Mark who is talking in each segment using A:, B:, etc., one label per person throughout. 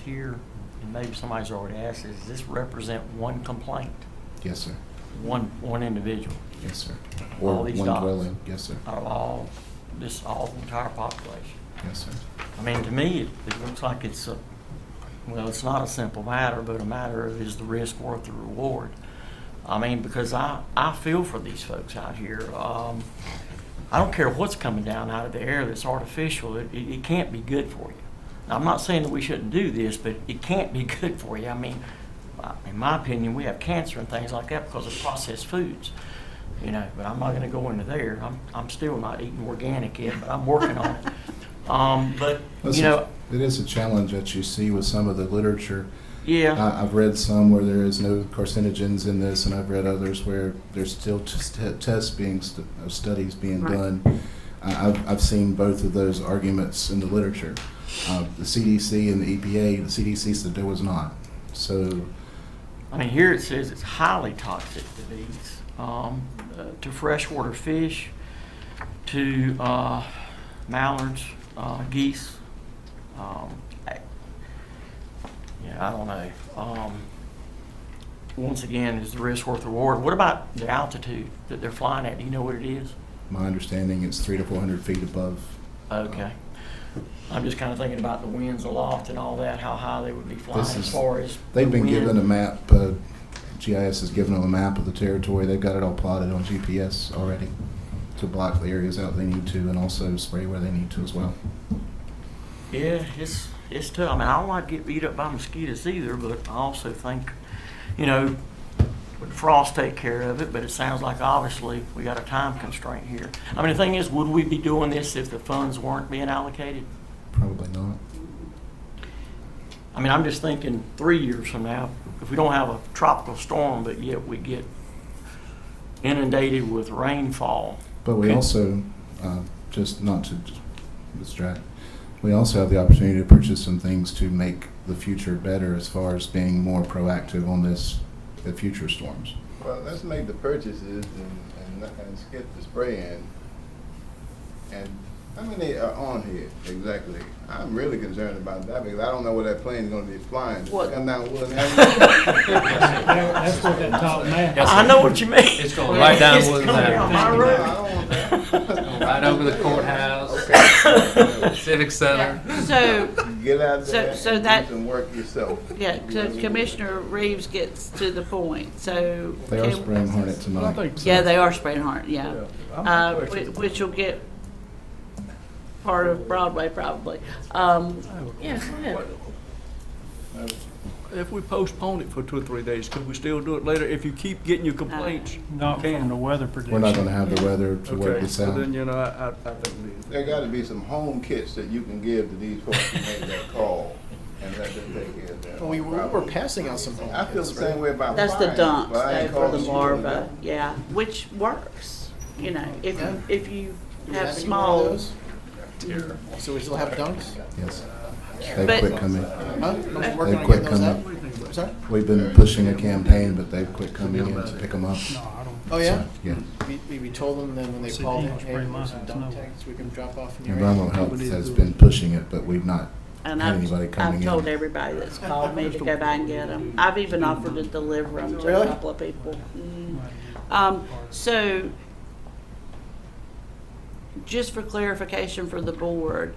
A: here, and maybe somebody's already asked, does this represent one complaint?
B: Yes, sir.
A: One, one individual
B: Yes, sir. Or
A: All
B: one
A: these dots.
B: dwelling. Yes, sir.
A: out of all, this, all the entire population?
B: Yes, sir.
A: I mean, to me, it, it looks like it's a, well, it's not a simple matter, but a matter of is the risk worth the reward? I mean, because I, I feel for these folks out here. Um, I don't care what's coming down out of the air that's artificial, it, it, it can't be good for you. Now, I'm not saying that we shouldn't do this, but it can't be good for you. I mean, I- in my opinion, we have cancer and things like that because of processed foods. You know, but I'm not gonna go into there. I'm, I'm still not eating organic yet, but I'm working on it. Um, but,
B: That's
A: you
B: a-
A: know,
B: it is a challenge that you see with some of the literature.
A: yeah,
B: I, I've read some where there is no carcinogens in this, and I've read others where there's still t- t- tests being st- uh, studies being
C: Right.
B: done. I, I've, I've seen both of those arguments in the literature. Uh, the CDC and the EPA. The CDC said there was not. So
A: I mean, here it says it's highly toxic to these, um, uh, to freshwater fish, to, uh, mallards, uh, geese. Um, I- Yeah, I don't know. Um, once again, is the risk worth the reward? What about the altitude that they're flying at? Do you know what it is?
B: my understanding is three to four hundred feet above.
A: Okay. I'm just kinda thinking about the winds aloft and all that, how high they would be flying
B: This
A: as
B: is-
A: far as.
B: They've
A: the
B: been
A: wind.
B: given a map. Uh, GIS has given them a map of the territory. They've got it all plotted on GPS already to block the areas out they need to, and also spray where they need to as well.
A: Yeah, it's, it's tough. I mean, I don't like to get beat up by mosquitoes either, but I also think, you know, would frost take care of it, but it sounds like obviously we got a time constraint here. I mean, the thing is, would we be doing this if the funds weren't being allocated?
B: Probably not.
A: I mean, I'm just thinking three years from now, if we don't have a tropical storm, but yet we get inundated with rainfall.
B: But we
A: Okay.
B: also, uh, just not to just distract, we also have the opportunity to purchase some things to make the future better as far as being more proactive on this, the future storms.
D: Well, let's make the purchases and, and, and skip the spraying. And how many are on here exactly? I'm really concerned about that because I don't know where that plane is gonna be flying.
A: What?
D: Come down Wood Avenue.
E: That- That's what that top man.
F: Yes,
A: I
F: sir.
A: know what you mean.
F: It's going right down
A: It's
F: Woodland
A: coming
F: Avenue.
A: down my
D: No,
A: road.
D: I don't want that.
F: Right over the courthouse.
D: Okay.
F: Civic Center.
C: Yeah, So,
D: Get out
C: So-
D: there
C: so
D: and do
C: that-
D: some work yourself.
C: yeah, so Commissioner Reeves gets to the point, so.
B: They are spraying hornet
E: I
B: tonight.
E: think so.
C: Yeah, they are spraying hard, yeah.
E: I'm
C: Uh,
E: quick.
C: whi- Which will get part of Broadway probably. Um,
E: I have a-
C: Yeah, go ahead.
G: If we postpone it for two or three days, could we still do it later? If you keep getting your complaints?
E: Not from the weather prediction.
B: We're not gonna have the weather to work
G: Okay,
B: this
G: so
B: out.
G: then, you know, I, I I think we need
D: There gotta be some home kits that you can give to these folks who make that call and let them take care of that.
H: We were, we were passing out some home
D: I feel the
H: kits, right?
D: same way about
C: That's the
D: fire,
C: dumps
D: but I
C: though
D: ain't
C: for the
D: calling you on that.
C: larva, yeah, which works, you know, if, you- if you
H: Do we
C: have
H: any more of
C: small.
H: those? So we still have dunks?
B: Yes. They've
C: But-
B: quit coming.
H: Huh? We're
B: They
H: Working on
B: quit
H: getting those out? Sorry?
B: We've been pushing a campaign, but they've quit coming in to pick them up.
E: No, I don't.
H: Oh, yeah?
B: Yeah.
H: We, we- we told them then when they
E: See,
H: called,
E: people
H: hey,
E: spray
H: there's some
E: mine,
H: dunk
E: no.
H: tanks we can drop off in your area.
B: Environmental health has been pushing it, but we've not
C: And
B: had
C: I've,
B: anybody
C: I've
B: coming in.
C: told everybody that's called me to go by and get them. I've even offered to deliver them to a
H: Really?
C: couple of people. Mm. Um, so, just for clarification for the board,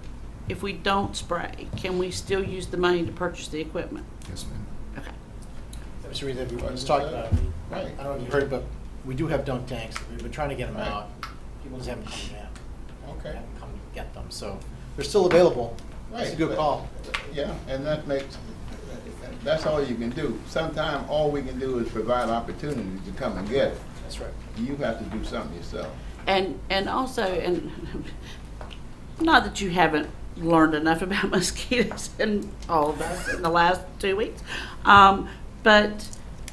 C: if we don't spray, can we still use the money to purchase the equipment?
B: Yes, ma'am.
C: Okay.
H: That was the reason we was talking about. it. I don't know if you heard, but we do have dunk tanks. We've been trying to get them
D: Right.
H: out. People just haven't come in.
D: Okay,
H: Haven't come to get them, so they're still available. It's a
D: Right,
H: good
D: but-
H: call.
D: yeah, and that makes, that's all you can do. Sometime, all we can do is provide opportunities to come and get it.
H: That's right.
D: You have to do something yourself.
C: And, and also, and not that you haven't learned enough about mosquitoes and all of us in the last two weeks, um, but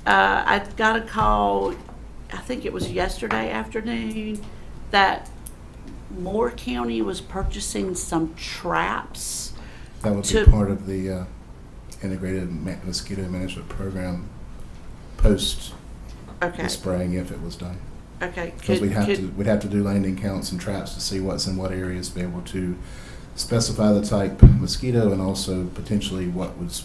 C: uh, I got a call, I think it was yesterday afternoon, that Moore County was purchasing some traps.
B: That would be
C: to-
B: part of the uh, integrated ma- mosquito management program post
C: Okay,
B: the spraying if it was done.
C: okay.
B: Because
C: could-
B: we'd have
C: could-
B: to, we'd have to do landing counts and traps to see what's in what areas, be able to specify the type of mosquito and also potentially what was